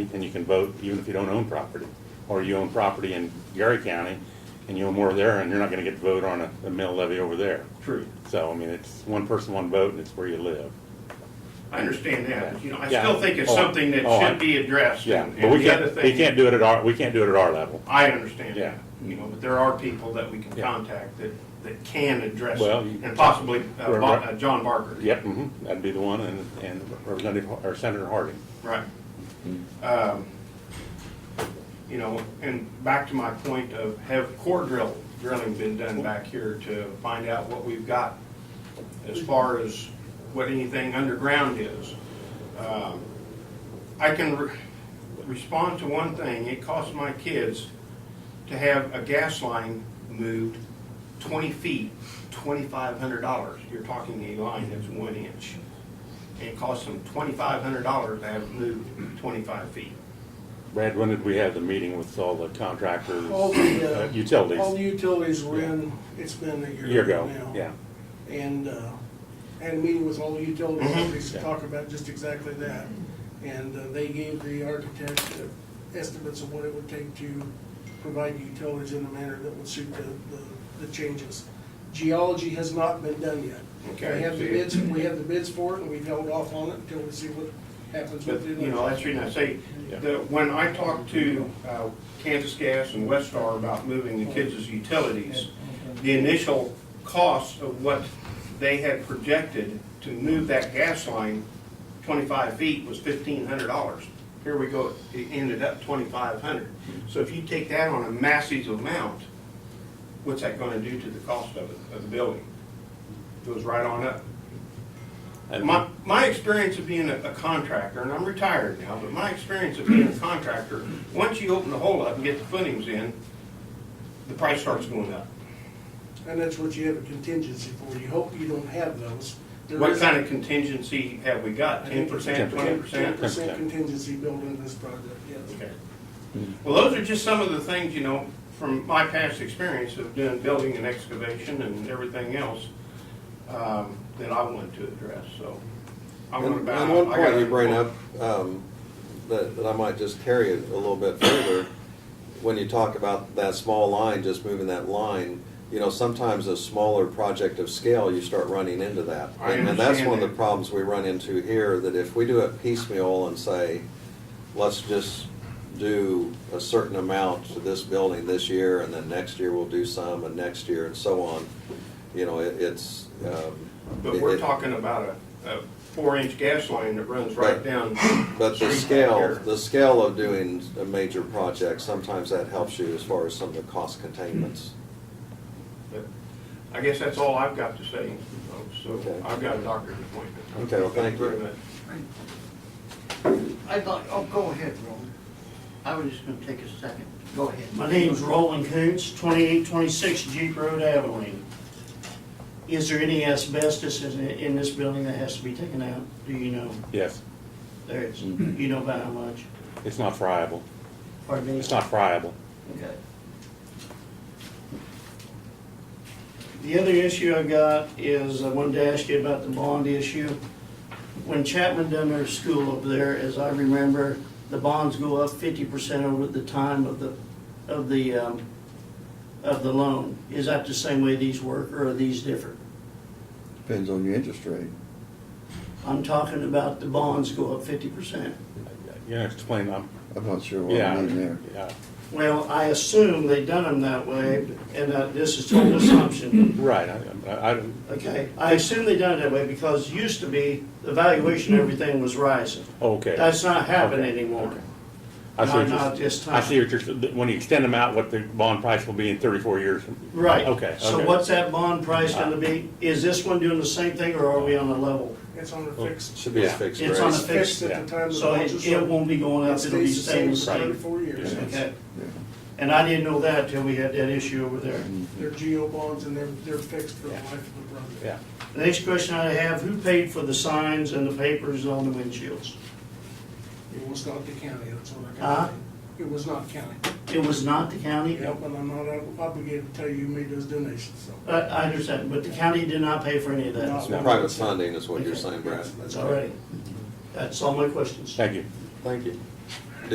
and you can vote even if you don't own property. Or you own property in Gary County and you own more there and you're not gonna get to vote on a, a mill levy over there. True. So, I mean, it's one person, one vote and it's where you live. I understand that, but, you know, I Yeah. still think it's Oh, something that oh, I- should be addressed. Yeah, and- but we and the other can't, we thing- can't do it at our, we can't do it at our level. I understand Yeah. that, you know, but there are people that we can Yeah. contact that, that can address it, Well, you- and possibly uh, Right, Bo- right. uh, John Barker. Yep, mhm, that'd be the one and, and Representative, Har- or Senator Harding. Right. Um, You know, and back to my point of have core drill, drilling been done back here to find out what we've got as far as what anything underground is? Um, I can re- respond to one thing, it cost my kids to have a gas line moved twenty feet, twenty-five hundred dollars. You're talking a line that's one inch and it cost them twenty-five hundred dollars to have it moved twenty-five feet. Brad, when did we have the meeting with all the contractors, All the, uh, uh, All the utilities? utilities were in, it's been a year. A year ago, now. yeah. And, uh, had a meeting with all the utility Mhm. companies to Yeah. talk about just exactly that. And uh, they gave the architect the estimates of what it would take to provide utilities in a manner that would suit the, the, the changes. Geology has not been done yet. Okay, We have the see. bids, we have the bids for it, and we've held off on it until we see what happens But, with it. you know, that's the reason I say, that when I talked to uh, Kansas Gas and Westar about moving the kids' utilities, the initial cost of what they had projected to move that gas line twenty-five feet was fifteen hundred dollars. Here we go, it ended up twenty-five hundred. So if you take that on a massive amount, what's that gonna do to the cost of it, of the building? Goes right on up. And- My, my experience of being a a contractor, and I'm retired now, but my experience of being a contractor, once you open the hole up and get the footings in, the price starts going up. And that's what you have a contingency for. You hope you don't have those. There What is- kind of contingency have we got? Ten percent, twenty Ten percent? percent contingency built into this project, yes. Okay. Well, those are just some of the things, you know, from my past experience of doing building and excavation and everything else, um, that I wanted to address, so. I'm gonna And bow. and one I point got- you bring up, um, that, that I might just carry it a little bit further, when you talk about that small line, just moving that line, you know, sometimes a smaller project of scale, you start running into that. I And- And that's understand one of that. the problems we run into here, that if we do it piecemeal and say, let's just do a certain amount to this building this year, and then next year we'll do some, and next year, and so on, you know, it, it's, um. But it- we're it- talking about a, a four-inch gas line that runs right Right. down. But street the back scale, here. the scale of doing a major project, sometimes that helps you as far as some of the cost containments. But I guess that's all I've got to say, folks. so Okay. I've got a doctor's appointment. Okay, well, thank you. very much. I'd like, oh, go ahead, Roland. I was just gonna take a second. Go ahead. My name's Roland Coontz, 2826 Jeep Road, Abilene. Is there any asbestos in, in this building that has to be taken out? Do you know? Yes, There is. You know by how much? it's not friable. Pardon me? It's not friable. Okay. The other issue I got is, I wanted to ask you about the bond issue. When Chapman done their school over there, as I remember, the bonds go up fifty percent over the time of the, of the, um, of the loan. Is that the same way these work, or are these different? Depends on your interest rate. I'm talking about the bonds go up fifty percent. You know, explain, I'm, I'm not sure what yeah, I mean there. yeah, Well, I assume they done them that way, and that this is total assumption. right, I, I, I- Okay, I assume they done it that way because used to be, the valuation, of everything was rising. okay. That's not happening Okay, anymore. okay. I see what Not- you're- not this I time. see what you're, when you extend them out, what the bond price will be in thirty-four years. from- Right. Okay, So okay. Ah. what's that bond price gonna be? Is this one doing the same thing or are we on a level? It's on a fixed, Should be a Yeah. fixed It's rate. on a it's fixed at the time of the So it, launch. it won't be going up, it'll be staying the same. Thirty-four years. Okay. Yeah. And I didn't know that till we had that issue over there. They're geo bonds and they're, they're fixed for the life of the project. Yeah, The next question I have, who paid for the signs and the papers on the windshields? It was not the county, that's what I Huh? got. It was not county. It was not the county? Yep, and I'm not obligated to tell you who made those donations, so. I, I understand, but the county did not pay for any of that. No. No. Private funding is what you're saying, Brad. That's- that's All right. That's all my questions. thank you. Thank you.